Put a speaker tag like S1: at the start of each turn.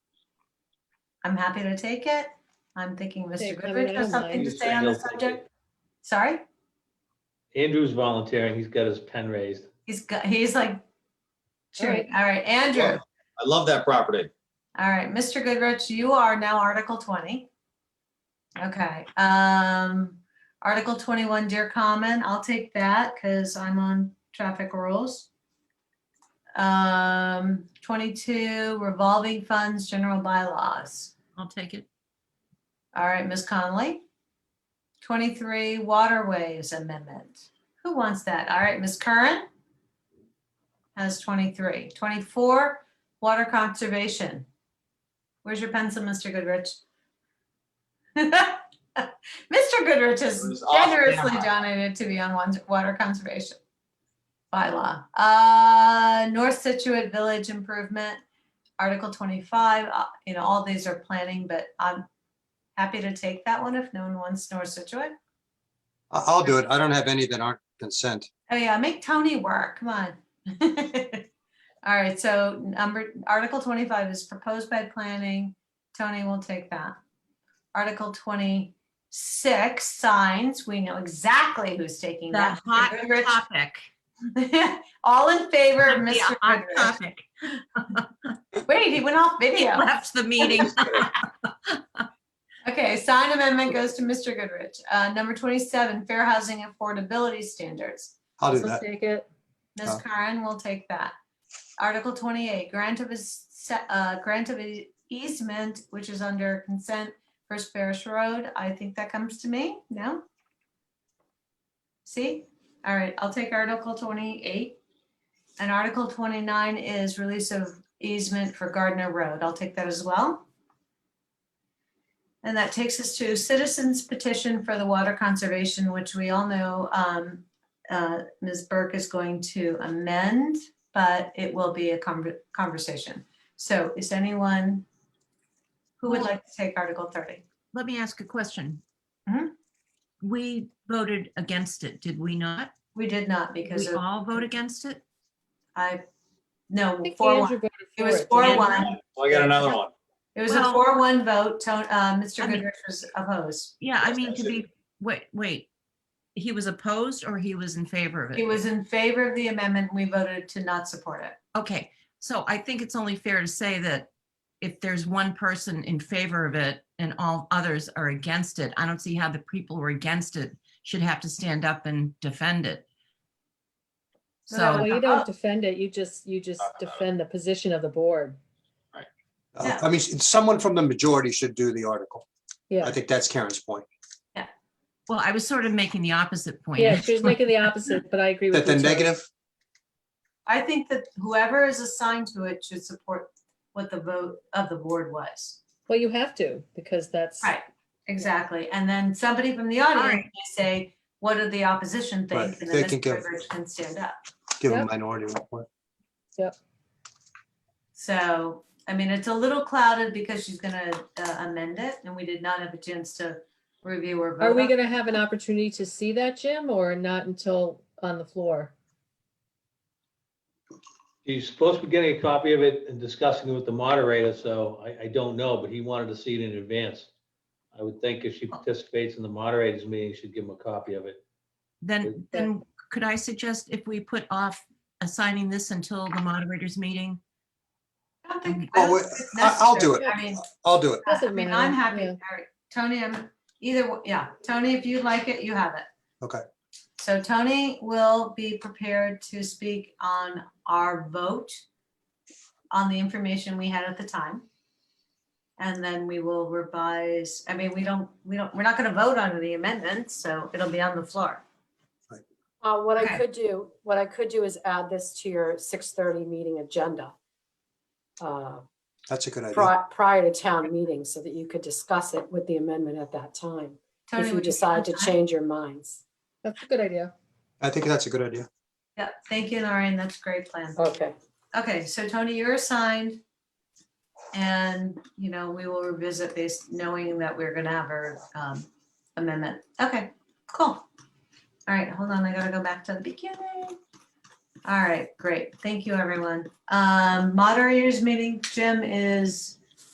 S1: I'm happy to take it. I'm thinking
S2: Okay,
S1: Mr.
S2: I mean,
S1: Goodrich
S2: I
S1: has
S2: don't
S1: something
S2: mind.
S1: to
S3: Andrew
S1: say
S3: said
S1: on the
S3: he'll take
S1: subject.
S3: it.
S1: Sorry,
S3: Andrew's volunteering. He's got his pen raised.
S1: he's, go- he's like,
S2: All right.
S1: cheering. all right, Andrew.
S4: I love that property.
S1: All right, Mr. Goodrich, you are now Article 20. Okay, um, Article 21, Dear Common, I'll take that because I'm on traffic rules. Um, 22, Revolving Funds, General Bylaws.
S5: I'll take it.
S1: All right, Ms. Connolly. 23, Waterways Amendment. Who wants that? All right, Ms. Curran has 23. 24, Water Conservation. Where's your pencil, Mr. Goodrich? Mr. Goodrich
S4: It
S1: has
S4: was off
S1: generously
S4: camera.
S1: donated to be on one- Water Conservation bylaw. Uh, North Situate Village Improvement, Article 25, uh, you know, all these are planning, but I'm happy to take that one if no one wants North Situate.
S6: I- I'll do it. I don't have any that aren't consent.
S1: Oh yeah, make Tony work, come on. All right, so number, Article twenty-five is proposed by planning, Tony will take that. Article twenty-six, signs, we know exactly who's taking
S5: The
S1: that.
S5: hot
S1: Goodrich.
S5: topic.
S1: All in favor of
S5: The
S1: Mr.
S5: hot
S1: Goodrich?
S5: topic.
S1: Wait, he went off video.
S5: Left the meeting.
S1: Okay, sign amendment goes to Mr. Goodrich. Uh, number twenty-seven, fair housing affordability standards.
S6: I'll do
S2: I'll
S6: that.
S2: take it.
S1: Ms.
S6: Uh.
S1: Karen will take that. Article twenty-eight, grant of, eas- se- uh, grant of e- easement, which is under consent, First Parish Road. I think that comes to me, no? See? All right, I'll take Article twenty-eight. And Article twenty-nine is release of easement for Gardner Road. I'll take that as well. And that takes us to citizens petition for the water conservation, which we all know, um, uh, Ms. Burke is going to amend, but it will be a conver- conversation. So is anyone who would like to take Article 30?
S5: Let me ask a question.
S1: Mhm.
S5: We voted against it, did we not?
S1: We did not because
S5: We
S1: of-
S5: all vote against it?
S1: I,
S2: I
S1: no,
S2: think
S1: four one.
S2: Andrew voted
S1: It
S2: for
S1: was
S2: it.
S1: four
S5: Andrew.
S1: one.
S4: Well, I got another one.
S1: It was a
S5: Well-
S1: four one vote. Tone, uh, Mr.
S5: I mean-
S1: Goodrich was opposed.
S5: Yeah, I
S4: Yes,
S5: mean,
S4: that's
S5: to
S4: it.
S5: be, wait, wait. He was opposed or he was in favor of it?
S1: He was in favor of the amendment. We voted to not support it.
S5: Okay, so I think it's only fair to say that if there's one person in favor of it and all others are against it, I don't see how the people who are against it should have to stand up and defend it.
S1: Well, that
S2: Well,
S5: So,
S1: was-
S2: you
S1: Oh.
S2: don't defend it, you just, you just defend the position of the board.
S6: Uh, I mean, s- someone from the majority should do the article.
S2: Yeah,
S6: I think that's Karen's point,
S5: well, I was sort of making the opposite point.
S2: yeah, she was making the opposite, but I agree with
S6: that
S2: you.
S6: the
S2: Terry.
S6: negative,
S1: I think that whoever is assigned to it should support what the vote of the board was.
S2: Well, you have to, because that's,
S1: Right, exactly. And then somebody from the
S5: right.
S1: audience may say, what do the opposition think?
S6: Right,
S1: And
S6: they
S1: then
S6: can
S1: Mr.
S6: give-
S1: Goodrich can stand up.
S6: give a
S2: Yep.
S6: minority report.
S1: So, I mean, it's a little clouded because she's gonna uh, amend it and we did not have a chance to review or vote.
S2: are we
S1: on-
S2: gonna have an opportunity to see that, Jim, or not until on the floor?
S3: He's supposed to be getting a copy of it and discussing it with the moderator, so I, I don't know, but he wanted to see it in advance. I would think if she participates in the moderator's meeting, she'd give him a copy of it.
S5: Then, then could I suggest if we put off assigning this until the moderator's meeting?
S1: I don't think-
S6: Well,
S1: I don't
S6: we-
S1: think it's
S6: Oh, I- I'll do
S1: necessary.
S2: it.
S1: I mean,
S6: I'll do it.
S1: I
S2: Doesn't
S1: mean, I'm
S2: matter,
S1: happy.
S2: yeah.
S1: All right, Tony, I'm either, w- yeah, Tony, if you like it, you have it.
S6: Okay.
S1: So Tony will be prepared to speak on our vote on the information we had at the time. And then we will revise, I mean, we don't, we don't, we're not going to vote on the amendments, so it'll be on the floor.
S7: Uh, what I
S1: Okay.
S7: could do, what I could do is add this to your six thirty meeting agenda. uh,
S6: That's a good idea.
S7: pri- Prior to town meeting, so that you could discuss it with the amendment at that time,
S1: Tony,
S7: if
S1: would
S7: you decide to
S1: like
S7: change your minds.
S2: That's a good idea.
S6: I think that's a good idea.
S1: Yeah, thank you, Lauren. That's a great plan.
S7: Okay,
S1: Okay, so Tony, you're assigned. And, you know, we will revisit this knowing that we're gonna have our um, amendment. Okay, cool. All right, hold on, I gotta go back to the beginning. All right, great. Thank you, everyone. Um, Moderators meeting, Jim is